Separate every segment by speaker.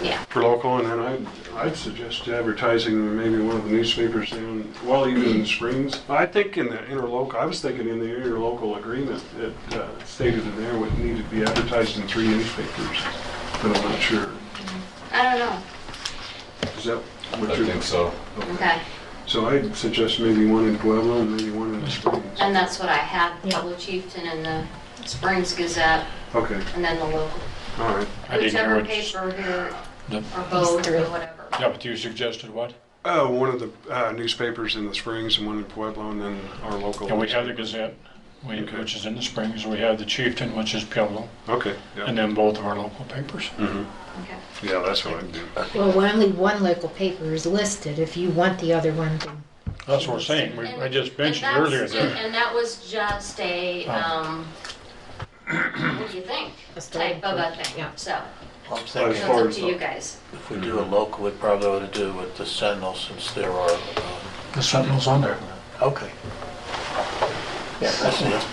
Speaker 1: Yeah.
Speaker 2: for local, and then I'd, I'd suggest advertising in maybe one of the newspapers down, well, even in Springs. I think in the interlocal, I was thinking in the interlocal agreement, it uh, stated in there would need to be advertised in three newspapers, but I'm not sure.
Speaker 1: I don't know.
Speaker 2: Is that what
Speaker 3: I
Speaker 2: you're?
Speaker 3: think so.
Speaker 1: Okay.
Speaker 2: So I'd suggest maybe one in Pueblo and maybe one in Springs.
Speaker 1: And that's what I had,
Speaker 4: Yeah.
Speaker 1: Pueblo Chieftain and the Springs Gazette,
Speaker 2: Okay,
Speaker 1: and then the local,
Speaker 2: all right.
Speaker 5: I didn't hear
Speaker 1: whichever
Speaker 5: what
Speaker 1: paper
Speaker 5: you-
Speaker 1: here,
Speaker 5: Yep.
Speaker 1: or both, or whatever.
Speaker 5: Yeah, but you suggested what?
Speaker 2: Uh, one of the uh, newspapers in the Springs and one in Pueblo and then our local.
Speaker 5: Yeah, we have the Gazette, we-
Speaker 2: Okay.
Speaker 5: which is in the Springs, we have the Chieftain, which is Pueblo,
Speaker 2: Okay, yeah.
Speaker 5: and then both of our local papers.
Speaker 2: Mhm.
Speaker 1: Okay.
Speaker 2: Yeah, that's what I'd do.
Speaker 4: Well, only one local paper is listed. If you want the other one, then
Speaker 5: That's what we're saying, we- I just
Speaker 1: And
Speaker 5: mentioned
Speaker 1: that's-
Speaker 5: earlier
Speaker 1: And
Speaker 5: that,
Speaker 1: and that was just a,
Speaker 5: Oh.
Speaker 1: um, what do you think,
Speaker 4: A story.
Speaker 1: type of a thing,
Speaker 4: Yeah.
Speaker 1: so,
Speaker 6: Well, I'm
Speaker 1: so
Speaker 2: As
Speaker 1: it's
Speaker 6: thinking,
Speaker 2: far
Speaker 1: up
Speaker 2: as
Speaker 1: to
Speaker 2: the-
Speaker 1: you guys.
Speaker 6: if we do a local, we probably ought to do with the Sentinel since there are, um,
Speaker 5: the Sentinel's on there.
Speaker 6: okay. Yeah, that's it.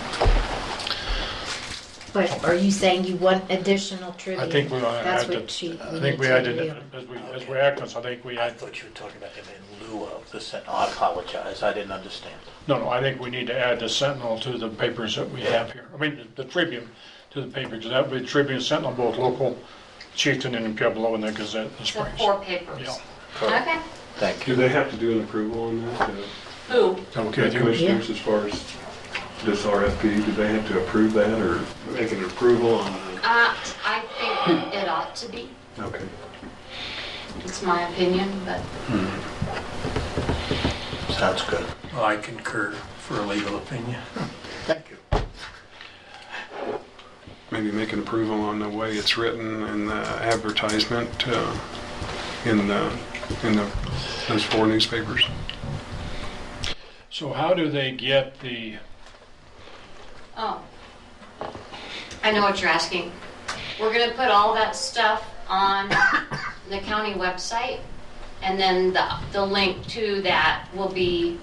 Speaker 4: but are you saying you want additional trivia?
Speaker 5: I think we ought to
Speaker 4: That's
Speaker 5: add
Speaker 4: what
Speaker 5: that,
Speaker 4: she,
Speaker 5: I
Speaker 4: we
Speaker 5: think
Speaker 4: need
Speaker 5: we
Speaker 4: to
Speaker 5: added,
Speaker 4: do.
Speaker 5: as we, as we act on this, I think we
Speaker 6: I
Speaker 5: add,
Speaker 6: thought you were talking about him in lieu of the Sentinel. I apologize, I didn't understand.
Speaker 5: no, no, I think we need to add the Sentinel to the papers that we have here. I mean, the Tribune to the papers, that would be Tribune, Sentinel, both local, Chieftain and Pueblo, and the Gazette, in the
Speaker 1: The
Speaker 5: Springs.
Speaker 1: four papers. Okay.
Speaker 6: Thank
Speaker 2: Do
Speaker 6: you.
Speaker 2: they have to do an approval on that? uh,
Speaker 1: Who?
Speaker 5: Okay,
Speaker 2: The
Speaker 5: with you?
Speaker 2: commissioners, as far as this RFP, do they have to approve that or make an approval on?
Speaker 1: Uh, I think it ought to be,
Speaker 2: the- Okay.
Speaker 1: it's my opinion, but
Speaker 6: Sounds good.
Speaker 7: I concur for a legal opinion.
Speaker 6: Thank you.
Speaker 2: Maybe make an approval on the way it's written and the advertisement uh, in the, in the, those four newspapers.
Speaker 5: So how do they get the,
Speaker 1: Oh. I know what you're asking. We're gonna put all that stuff on the county website, and then the, the link to that will be,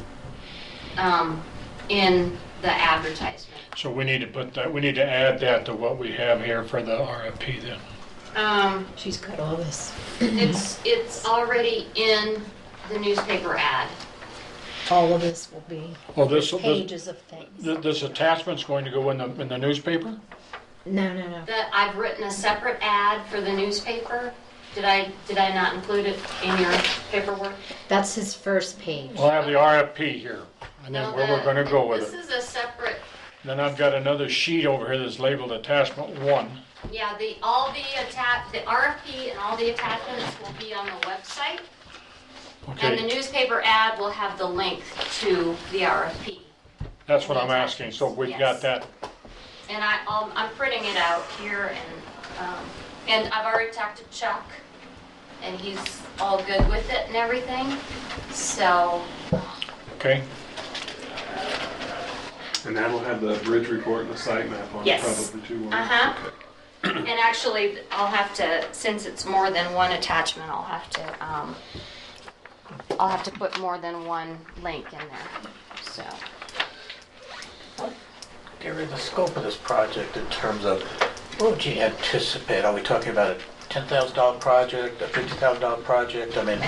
Speaker 1: um, in the advertisement.
Speaker 5: so we need to put that, we need to add that to what we have here for the RFP then.
Speaker 1: Um,
Speaker 4: She's got all this.
Speaker 1: it's, it's already in the newspaper ad.
Speaker 4: All of this will be
Speaker 5: Well, this, this,
Speaker 4: pages of things.
Speaker 5: th- this attachment's going to go in the, in the newspaper?
Speaker 4: No, no, no.
Speaker 1: That, I've written a separate ad for the newspaper. Did I, did I not include it in your paperwork?
Speaker 4: That's his first page.
Speaker 5: We'll have the RFP here, and then where we're gonna go with it.
Speaker 1: This is a separate
Speaker 5: Then I've got another sheet over here that's labeled attachment one.
Speaker 1: Yeah, the, all the attach, the RFP and all the attachments will be on the website, and the
Speaker 5: Okay,
Speaker 1: newspaper ad will have the link to the RFP.
Speaker 5: that's what I'm asking, so we've
Speaker 1: Yes.
Speaker 5: got that,
Speaker 1: And I, um, I'm printing it out here, and, um, and I've already talked to Chuck, and he's all good with it and everything, so,
Speaker 5: okay?
Speaker 2: And that'll have the bridge report and the site map on it
Speaker 1: Yes.
Speaker 2: probably too. won't it?
Speaker 1: Uh-huh.
Speaker 2: Okay.
Speaker 1: and actually, I'll have to, since it's more than one attachment, I'll have to, um, I'll have to put more than one link in there, so.
Speaker 6: Gary, the scope of this project in terms of, what would you anticipate? Are we talking about a $10,000 project, a $50,000 project? I mean,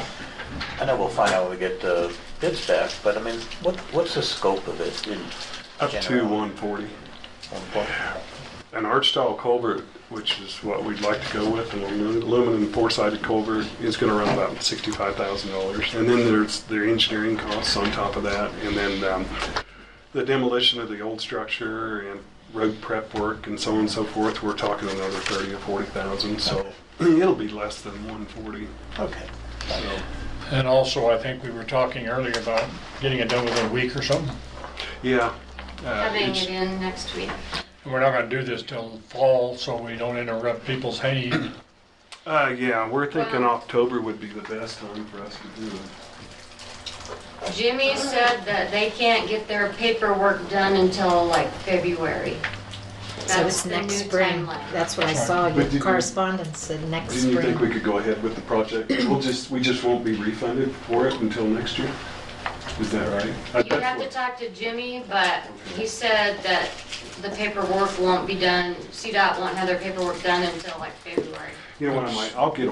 Speaker 6: I know we'll find out when we get the bids back, but I mean, what, what's the scope of it in
Speaker 2: Up to
Speaker 6: general?
Speaker 2: 140.
Speaker 6: One point.
Speaker 2: an arch style culvert, which is what we'd like to go with, an alu- aluminum four-sided culvert, is gonna run about sixty-five thousand dollars. And then there's their engineering costs on top of that, and then, um, the demolition of the old structure and road prep work and so on and so forth, we're talking another thirty or forty thousand, so it'll be less than one forty,
Speaker 6: Okay.
Speaker 2: so.
Speaker 5: And also, I think we were talking earlier about getting it done within a week or something.
Speaker 2: Yeah. uh,
Speaker 1: Having
Speaker 2: it's-
Speaker 1: it in next week.
Speaker 5: We're not gonna do this till fall, so we don't interrupt people's hay.
Speaker 2: Uh, yeah, we're thinking
Speaker 1: Well-
Speaker 2: October would be the best time for us to do it.
Speaker 1: Jimmy said that they can't get their paperwork done until like February.
Speaker 4: So it's
Speaker 1: That's the
Speaker 4: next
Speaker 1: new
Speaker 4: spring.
Speaker 1: timeline.
Speaker 4: That's what I saw.
Speaker 2: But
Speaker 4: Your
Speaker 2: did you-
Speaker 4: correspondence said next
Speaker 2: Didn't you think we
Speaker 4: spring.
Speaker 2: could go ahead with the project? We'll just, we just won't be refunded for it until next year? Is that right? I-
Speaker 1: You
Speaker 2: that's
Speaker 1: have to
Speaker 2: what-
Speaker 1: talk to Jimmy, but he said that the paperwork won't be done, CDOT won't have their paperwork done until like February.
Speaker 2: You know what, I might, I'll get